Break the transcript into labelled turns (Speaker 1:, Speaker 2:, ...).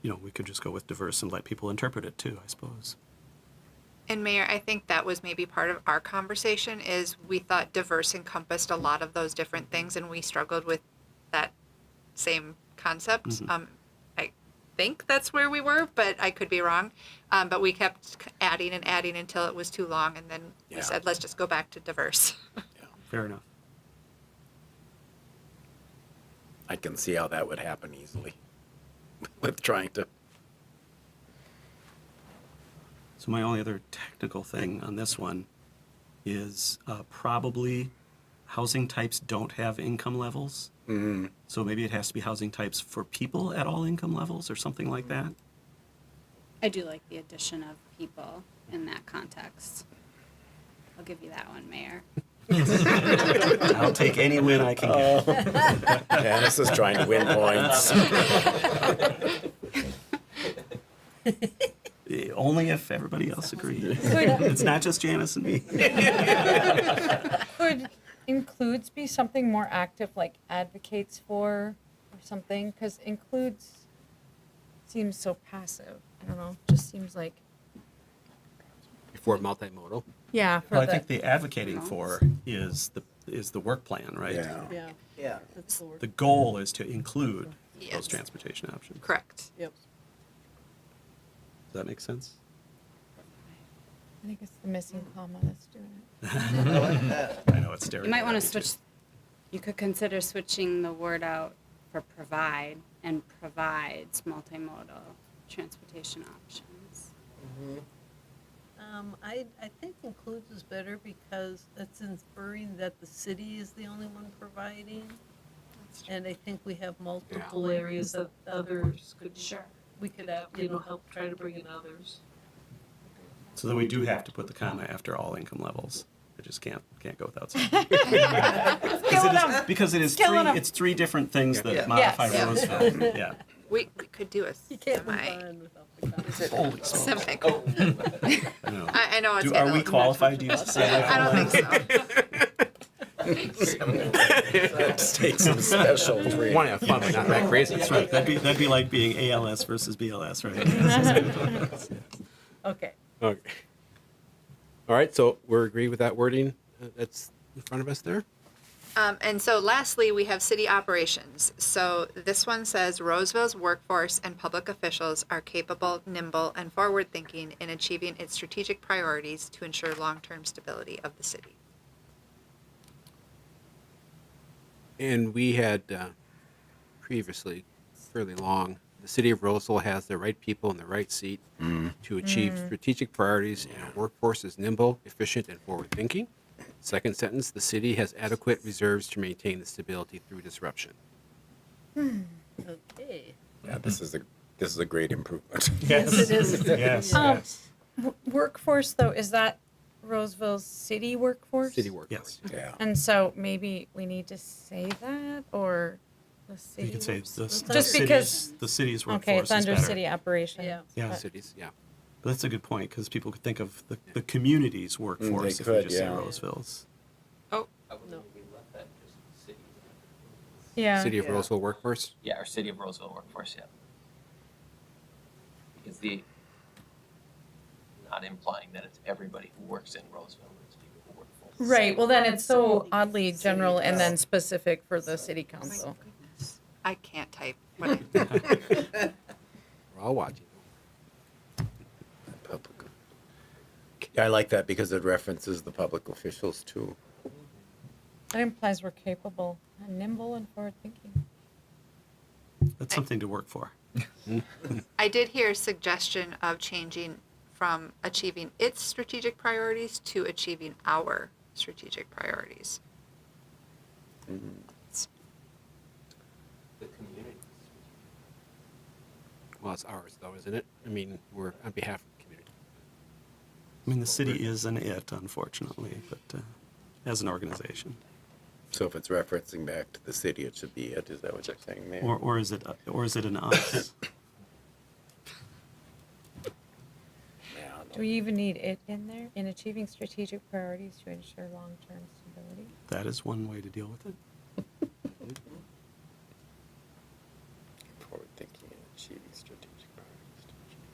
Speaker 1: you know, we could just go with diverse and let people interpret it too, I suppose.
Speaker 2: And Mayor, I think that was maybe part of our conversation is we thought diverse encompassed a lot of those different things and we struggled with that same concept.
Speaker 1: Mm-hmm.
Speaker 2: Um, I think that's where we were, but I could be wrong. Um, but we kept c- adding and adding until it was too long and then we
Speaker 3: Yeah.
Speaker 2: said, let's just go back to diverse.
Speaker 1: Fair enough.
Speaker 3: I can see how that would happen easily with trying to.
Speaker 1: So my only other technical thing on this one is uh, probably housing types don't have income levels. So maybe it has to be housing types for people at all income levels or something like that.
Speaker 4: I do like the addition of people in that context. I'll give you that one, Mayor.
Speaker 1: I'll take any win I can get.
Speaker 3: Yeah, this is trying to win points.
Speaker 1: Eh, Only if everybody else agrees. It's not just Janice and me.
Speaker 5: Could includes be something more active, like advocates for or something? Because includes seems so passive. I don't know, just seems like.
Speaker 6: for multimodal.
Speaker 5: Yeah, for
Speaker 1: Well, I
Speaker 5: the,
Speaker 1: think the advocating for is the, is the work plan, right?
Speaker 3: Yeah.
Speaker 7: Yeah,
Speaker 8: Yeah,
Speaker 7: that's the word.
Speaker 1: The goal is to include those
Speaker 2: Yes.
Speaker 1: transportation options.
Speaker 2: Correct.
Speaker 7: Yep.
Speaker 1: Does that make sense?
Speaker 5: I think it's the missing comma that's doing it.
Speaker 8: I like that.
Speaker 1: I know it's
Speaker 4: You might want to switch, you could consider switching the word out for provide and provides multimodal transportation options.
Speaker 7: Um, I, I think includes is better because it's inferring that the city is the only one providing. And I think we have multiple areas that others could, we could, have, you know, help try to bring in others.
Speaker 1: So then we do have to put the comma after all income levels. I just can't can't go without saying. because, it is, because it is three,
Speaker 5: Killing 'em.
Speaker 1: it's three different things that
Speaker 3: Yeah.
Speaker 1: modify
Speaker 2: Yes.
Speaker 1: Roosevelt. yeah.
Speaker 2: We, we could do a
Speaker 7: You can't move
Speaker 2: semi.
Speaker 7: on without the comments.
Speaker 1: Holy smokes.
Speaker 2: Semi.
Speaker 1: I know.
Speaker 2: I, I know it's.
Speaker 1: Oh. Do, are we qualified to use the same?
Speaker 2: I don't think so.
Speaker 3: Let's take some special treat.
Speaker 6: Want to have fun, but not that crazy.
Speaker 1: That's right. That'd be that'd be like being ALS versus BLS, right?
Speaker 7: Okay,
Speaker 6: Okay. All right, so we're agreed with that wording uh, that's in front of us there?
Speaker 2: Um, and so lastly, we have city operations. So this one says Roseville's workforce and public officials are capable, nimble, and forward thinking in achieving its strategic priorities to ensure long term stability of the city.
Speaker 6: And we had uh, previously, fairly long, the city of Roseville has the right people in the right seat to achieve
Speaker 5: Mm-hmm.
Speaker 6: strategic priorities and a workforce is nimble, efficient, and forward-thinking. Second sentence, the city has adequate reserves to maintain the stability through disruption.
Speaker 7: okay.
Speaker 3: Yeah, this is a this is a great improvement.
Speaker 1: yes.
Speaker 7: It is.
Speaker 1: Yes.
Speaker 5: Um, w- workforce though is that Roseville's city workforce?
Speaker 6: City workforce.
Speaker 1: Yes.
Speaker 3: Yeah.
Speaker 5: And so maybe we need to say that or the city.
Speaker 1: You could say the,
Speaker 5: workforce?
Speaker 1: the
Speaker 5: just
Speaker 1: city's,
Speaker 5: because.
Speaker 1: the city's workforce
Speaker 5: Okay, it's under
Speaker 1: is better.
Speaker 5: city operations.
Speaker 7: Yeah.
Speaker 1: Yeah, but
Speaker 6: Cities, yeah.
Speaker 1: that's a good point because people could think of the, the community's workforce if we
Speaker 3: could,
Speaker 1: just say
Speaker 3: yeah.
Speaker 1: Roseville's.
Speaker 2: Oh,
Speaker 9: I would
Speaker 7: No.
Speaker 9: think we left that just city.
Speaker 5: Yeah.
Speaker 6: City of
Speaker 8: Yeah.
Speaker 6: Roseville workforce.
Speaker 9: Yeah, our city of Roseville workforce, yeah. Because the, not implying that it's everybody who works in Roseville, it's people who work for. the
Speaker 5: Right, well then it's so
Speaker 4: City.
Speaker 5: oddly general and then specific for the city
Speaker 2: my
Speaker 5: council.
Speaker 2: goodness. I can't type. What I,
Speaker 6: We're all watching.
Speaker 3: Public. I like that because it references the public officials too.
Speaker 5: That implies we're capable, and nimble and forward thinking.
Speaker 1: That's something to work for.
Speaker 2: I did hear a suggestion of changing from achieving its strategic priorities to achieving our strategic priorities.
Speaker 9: The community.
Speaker 6: Well, it's ours though, isn't it? I mean, we're on behalf of the community.
Speaker 1: I mean, the city is an it, unfortunately, but uh, as an organization,
Speaker 3: So if it's referencing back to the city, it should be it. Is that what you're saying, Mayor?
Speaker 1: or or is it uh, or is it an us?
Speaker 3: yeah, I
Speaker 5: Do we even need it in there? In achieving strategic priorities to ensure long-term stability?
Speaker 1: that is one way to deal with it.